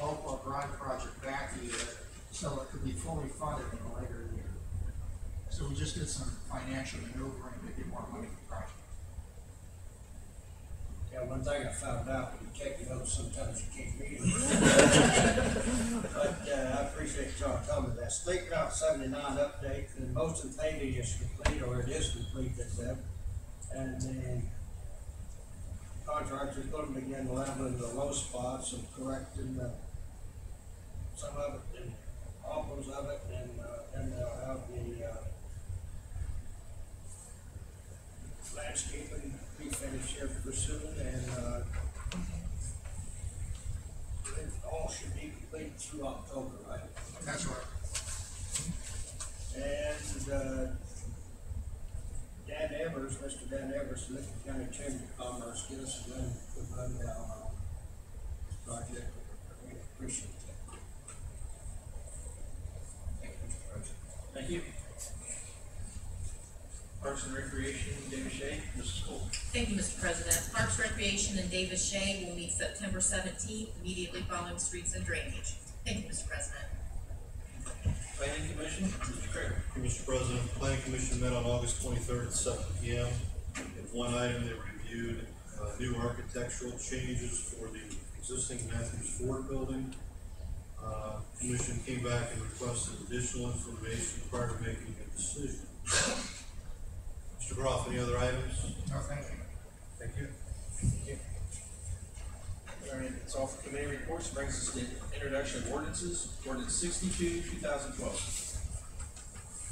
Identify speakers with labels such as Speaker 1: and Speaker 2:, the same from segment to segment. Speaker 1: garage project back a year, so it could be fully funded in a later year. So we just did some financial maneuvering to get more money for the project.
Speaker 2: Yeah, one thing I found out, when you take notes, sometimes you can't read them. But, uh, I appreciate y'all coming to that. State Route seventy-nine update, the most of the paving is complete, or it is complete, that's that. And the contractor's gonna begin leveling the low spots and correcting the, some of it, and offers of it, and, uh, then they'll have the, uh, landscaping be finished here pretty soon and, uh, it all should be complete through October, right?
Speaker 1: That's right.
Speaker 2: And, uh, Dan Evers, Mr. Dan Evers, Lincoln County Chamber of Commerce, get us a run, a rundown on this project. We appreciate that.
Speaker 3: Thank you, Mr. President.
Speaker 4: Thank you. Parks and Recreation, David Shea, Mrs. Cole.
Speaker 5: Thank you, Mr. President. Parks Recreation and Davis Shea will meet September seventeenth, immediately following streets and drainage. Thank you, Mr. President.
Speaker 4: Planning Commission, Mr. Craig.
Speaker 6: Thank you, Mr. President, the planning commission met on August twenty-third at seven P M. In one item, they reviewed, uh, new architectural changes for the existing Matthews Ford building. Uh, commission came back and requested additional information prior to making a decision. Mr. Groff, any other items?
Speaker 1: No, thank you.
Speaker 4: Thank you. All right, it's all for committee reports, brings us to introduction of ordinances, ordinance sixty-two, two thousand twelve.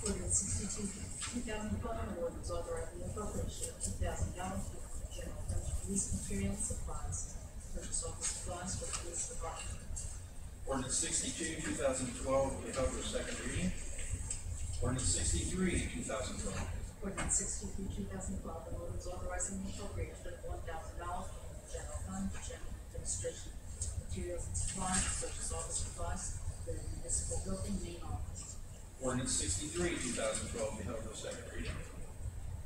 Speaker 7: Ordinance sixty-two, two thousand twelve, an ordinance authorizing the appropriation of two thousand dollars for general fund police material supplies, purchase office supplies for the police department.
Speaker 4: Ordinance sixty-two, two thousand twelve, will be held for second reading. Ordinance sixty-three, two thousand twelve.
Speaker 7: Ordinance sixty-three, two thousand twelve, an ordinance authorizing the appropriation of one thousand dollars from the general fund for general administration materials and supplies, purchase office supplies for the municipal building main office.
Speaker 4: Ordinance sixty-three, two thousand twelve, will be held for second reading.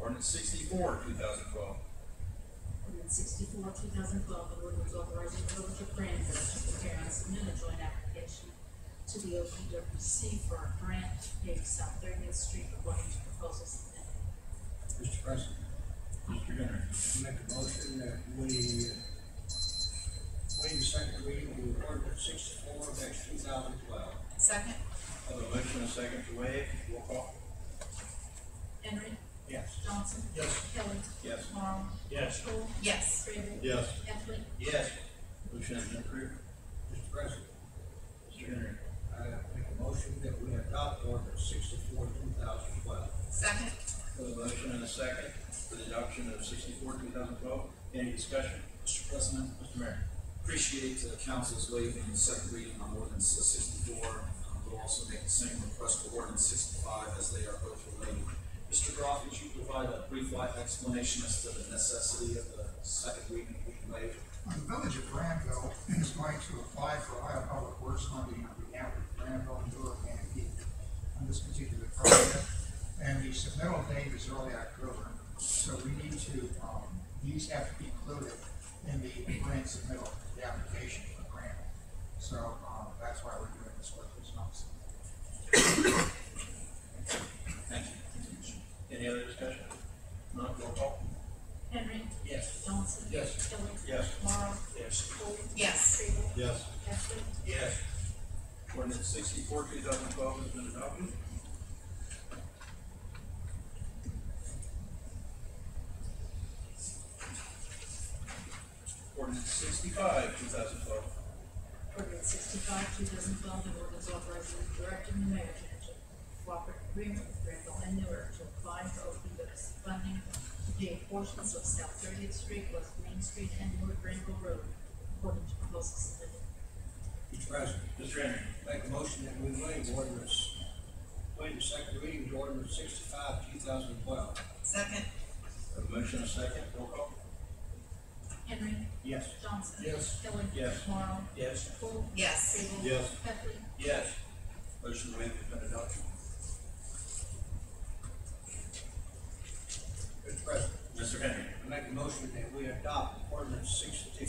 Speaker 4: Ordinance sixty-four, two thousand twelve.
Speaker 7: Ordinance sixty-four, two thousand twelve, an ordinance authorizing the village of Cranford to prepare and submit a joint application to the OPWC for a grant to pave South Thirtieth Street according to proposals submitted.
Speaker 2: Mr. President,
Speaker 3: Mr. Henry.
Speaker 2: I make a motion that we waive the second reading of ordinance sixty-four dash two thousand twelve.
Speaker 5: Second,
Speaker 4: Have a motion and a second to waive, roll call.
Speaker 7: Henry.
Speaker 2: Yes.
Speaker 7: Johnson.
Speaker 2: Yes.
Speaker 7: Kelly.
Speaker 4: Yes.
Speaker 7: Tomorrow.
Speaker 3: Yes.
Speaker 7: Cole.
Speaker 5: yes.
Speaker 7: Craven.
Speaker 6: Yes.
Speaker 7: Epley.
Speaker 4: Yes. Motion has been approved.
Speaker 2: Mr. President,
Speaker 4: Mr. Henry.
Speaker 2: I make a motion that we adopt ordinance sixty-four, two thousand twelve.
Speaker 5: Second,
Speaker 4: Have a motion and a second for the adoption of sixty-four, two thousand twelve. Any discussion?
Speaker 3: Mr. President,
Speaker 4: Mr. Mayor.
Speaker 3: appreciate the council's waiving the second reading on ordinance sixty-four. Um, We'll also make the same request for ordinance sixty-five as they are both related. Mr. Groff, would you provide a brief life explanation as to the necessity of the second reading being waived?
Speaker 1: Well, The village of Granville is going to apply for Ohio Public Works funding on behalf of Granville and Newark and Keith on this particular project. And the submittal date is early October, so we need to, um, these have to be included in the grant submittal, the application for grant. So, um, that's why we're doing this work this month.
Speaker 4: Thank you. Any other discussion? Not roll call.
Speaker 7: Henry.
Speaker 2: Yes.
Speaker 7: Johnson.
Speaker 2: Yes.
Speaker 7: Kelly.
Speaker 4: Yes.
Speaker 7: Tomorrow.
Speaker 4: Yes.
Speaker 7: Cole.
Speaker 5: yes.
Speaker 7: Craven.
Speaker 6: Yes.
Speaker 7: Epley.
Speaker 4: Yes. Ordinance sixty-four, two thousand twelve has been adopted. Ordinance sixty-five, two thousand twelve.
Speaker 7: Ordinance sixty-five, two thousand twelve, an ordinance authorizing and directing the mayor to enter cooperative agreement with Granville and Newark to apply for open doors funding to pay portions of South Thirtieth Street, West Main Street, and Newark Granville Road, according to proposals submitted.
Speaker 2: Mr. President,
Speaker 4: Mr. Henry.
Speaker 2: make a motion that we waive ordinance, waive the second reading of ordinance sixty-five, two thousand twelve.
Speaker 5: Second,
Speaker 4: A motion, a second, roll call.
Speaker 7: Henry.
Speaker 2: Yes.
Speaker 7: Johnson.
Speaker 2: Yes.
Speaker 7: Kelly.
Speaker 4: Yes.
Speaker 7: Morrow.
Speaker 4: Yes.
Speaker 7: Cole.
Speaker 5: yes.
Speaker 7: Crable.
Speaker 6: Yes.
Speaker 7: Heffley.
Speaker 4: Yes. Motion waived has been adopted.
Speaker 2: Mr. President,
Speaker 4: Mr. Henry.
Speaker 2: I make a motion that we adopt ordinance sixty-two,